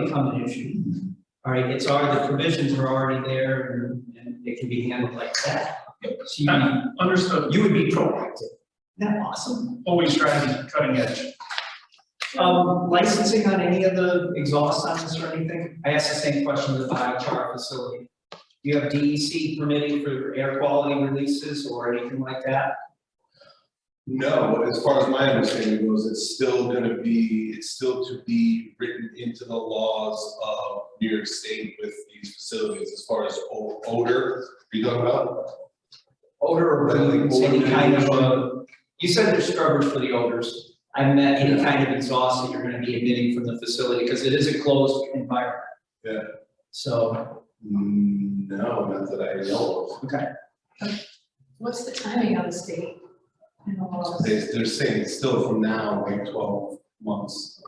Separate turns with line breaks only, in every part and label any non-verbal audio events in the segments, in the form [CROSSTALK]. become an issue. All right, it's already, the provisions are already there and, and it can be handled like that. So you,
Understood,
you would be proactive. Isn't that awesome?
always trying to cutting edge.
Um, licensing on any of the exhaust on this or anything? I asked the same question to the biochar facility. Do you have DEC permitting for air quality releases or anything like that?
No, as far as my understanding goes, it's still gonna be, it's still to be written into the laws of New York State with these facilities as far as o- odor, are you talking about?
Odor
Like, like
removals, any
odor
kind of, uh,
removal?
you said there's scrubbers for the odors. I meant any kind of exhaust that you're gonna be emitting from the facility, because it is a closed environment.
Yeah.
So,
Mm, No, not that I know
okay,
What's the timing on the state? And all
of.
of us?
They, they're saying it's still from now, like twelve months,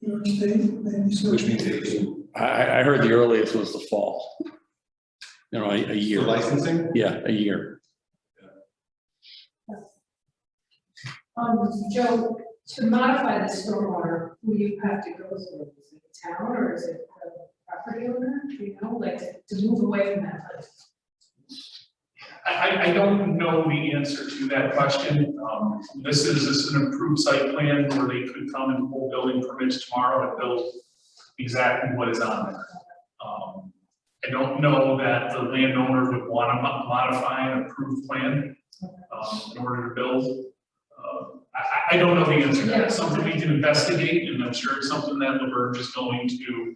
which means they can,
I, I I heard the earliest was the fall. You know, a, a
for
year,
licensing?
yeah, a year.
Um, Joe, to modify the stormwater, who do you have to go through? Is it the town or is it the property owner? Do You know, like to move away from that place?
I, I, I don't know the answer to that question. Um, this is, this is an approved site plan where they could come and pull building permits tomorrow and build exactly what is on there. Um, I don't know that the landowner would want to modify an approved plan, um, in order to build. Uh, I, I, I don't know the answer to that. It's Something we can investigate, and I'm sure it's something that Laverne is going to,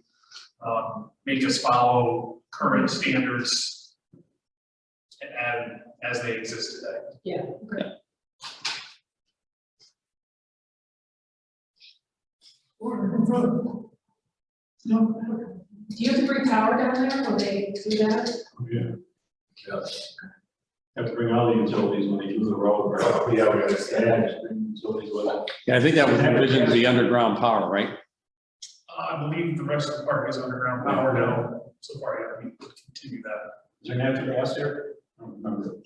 um, make us follow current standards and as they exist today.
Yeah, okay. No. Do you have to bring power down there? Will they do that?
Yes. Have to bring all the utilities when they do the road, right?
Yeah, we gotta
They have to bring utilities with them.
Yeah, I think that was envisioned to be underground power, right?
Uh, I believe the rest of the park is underground power now, so far, yeah, we continue that,
Is there natural gas there? I don't remember.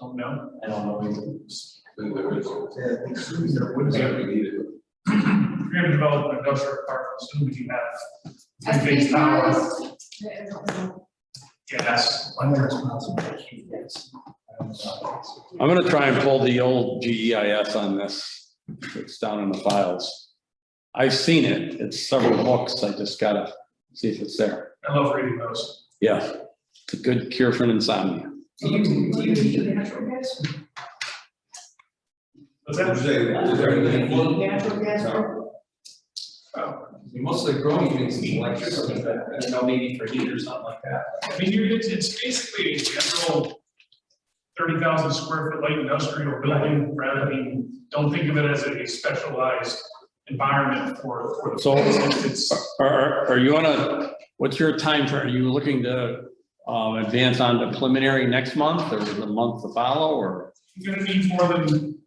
don't know. [CLEARS THROAT]
I don't know. either.
Then there is-
We're
we need it.
gonna develop an industrial park, soon we have three-phase power,
I don't know.
gas,
one more responsibility, yes.
uh,
I'm gonna try and pull the old GEIS on this, it's down in the files. I've seen it, it's several books, I just gotta see if it's there.
I love reading those.
Yeah, it's a good cure for insomnia.
Do you, do you need natural gas?
But
Would
that,
you say, is there anything?
Need natural gas?
No.
Most of the growing things is electricity, but, you know, maybe for heat or something like that.
I mean, you're, it's, it's basically a general thirty thousand square foot light industrial building, rather than, don't think of it as a specialized environment for, for the.
So-
It's,
Are, are- are you on a, what's your time for, are you looking to, um, advance on the preliminary next month or the month to follow or?
You're gonna need more than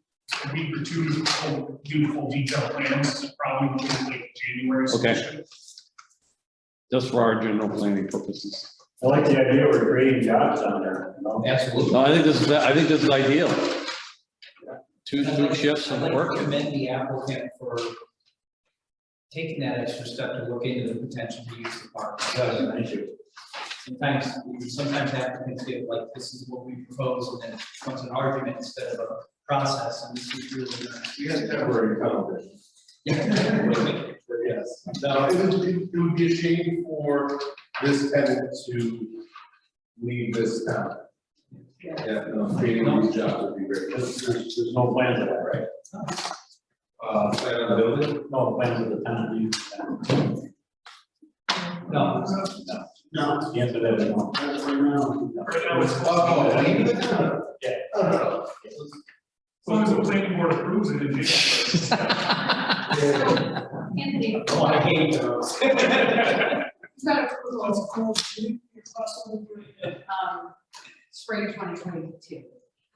a week or two to full- do full detailed plans, probably looking like January.
Okay.
session.
Just for our general planning purposes?
I like the idea we're creating jobs down there, you know?
Absolutely.
No, I think this is, I think this is ideal. Two, two shifts
I'd
and
like to
work.
commend the applicant for taking that extra step to look into the potential to use the park.
Thank you.
Sometimes, sometimes applicants get like, this is what we propose, and then it becomes an argument instead of a process, and this is really.
You guys have already covered it.
Yeah.
Yes. Now, it would, it would be a shame for this tenant to leave this town.
Yeah.
Yeah, no, creating these jobs would be very,
There's, there's, there's no plans of that, right?
uh, plan on the building?
No plans of the town to use that.
No,
No. The answer to that is no.
Right now, it's, as
Oh, leave the town?
Yeah.
Oh,
long as the planning board approves it, it's.
[LAUGHS]
[LAUGHS]
Anthony,
oh, I hate those.
it's not a proposal, it's a cool, it's possible, um, spring twenty twenty-two.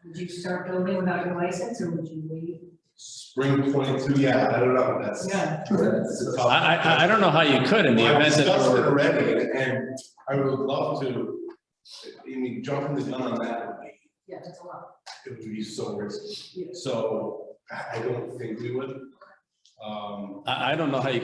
Would you start building without your license or would you wait?
Spring twenty-two, yeah, I don't know, that's.
Yeah.
that's a
I,
tough-
I, I don't know how you could in the
I've
event that
discussed it
there were-
already, and I would love to, I mean, jumping the gun on that would be,
Yeah, that's a lot.
it would be so risky.
Yeah.
So I, I don't think we would. Um,
I, I don't know how you